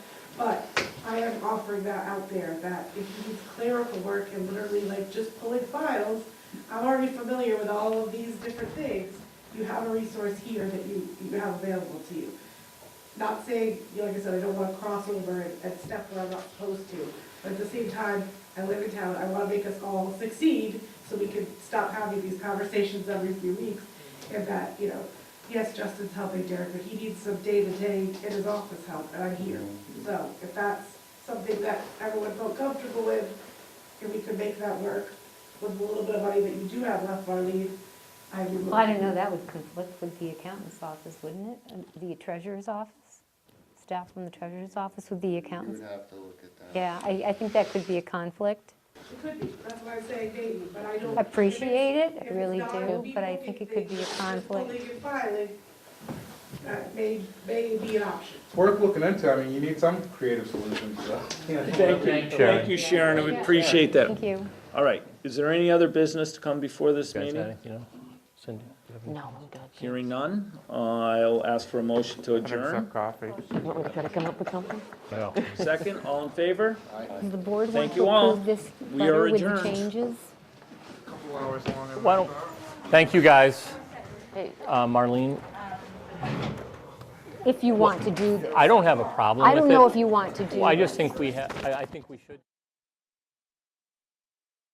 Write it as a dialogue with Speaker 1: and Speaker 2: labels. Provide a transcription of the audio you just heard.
Speaker 1: offering that out there, that if you need clerical work and literally like just pulling files, I'm already familiar with all of these different things, you have a resource here that you, you have available to you. Not saying, you know, like I said, I don't wanna cross over and, and step where I'm not supposed to, but at the same time, I live in town, I wanna make us all succeed, so we can stop having these conversations every few weeks, and that, you know, yes, Justin's helping Derek, but he needs some day-to-day in his office help, and I'm here. So if that's something that everyone felt comfortable with, and we could make that work with a little bit of money that you do have left, Marlene, I would.
Speaker 2: Well, I don't know, that would conflict with the accountant's office, wouldn't it? And The treasurer's office? Staff from the treasurer's office with the
Speaker 3: You would
Speaker 2: accountants?
Speaker 3: have to look at that.
Speaker 2: Yeah, I, I think that could be a conflict.
Speaker 1: It could be, that's why I'm saying maybe, but I don't.
Speaker 2: Appreciate it, I
Speaker 1: If it's
Speaker 2: really
Speaker 1: not, it will
Speaker 2: do,
Speaker 1: be
Speaker 2: but I
Speaker 1: moving
Speaker 2: think it could be a
Speaker 1: things, just
Speaker 2: conflict.
Speaker 1: Pulling and filing, that may, may be an option.
Speaker 4: Worth looking into, I mean, you need some creative solutions, so.
Speaker 5: Thank you, thank you, Sharon, I would appreciate that.
Speaker 2: Thank you.
Speaker 5: All right, is there any other business to come before this meeting?
Speaker 2: No, I'm good.
Speaker 5: Hearing none, I'll ask for a motion to adjourn.
Speaker 4: coffee.
Speaker 2: What, we gotta come up with something?
Speaker 5: Second, all in favor?
Speaker 2: Does the board
Speaker 5: Thank
Speaker 2: want
Speaker 5: you
Speaker 2: to
Speaker 5: all.
Speaker 2: approve this
Speaker 5: We are
Speaker 2: letter with the
Speaker 5: adjourned.
Speaker 2: changes?
Speaker 4: Couple hours long.
Speaker 6: Why don't, thank you, guys.
Speaker 2: Hey.
Speaker 6: Uh, Marlene,
Speaker 2: If you want to do this.
Speaker 6: I don't have a problem with it.
Speaker 2: I don't know if you want to do this.
Speaker 6: Well, I just think we have, I I think we should.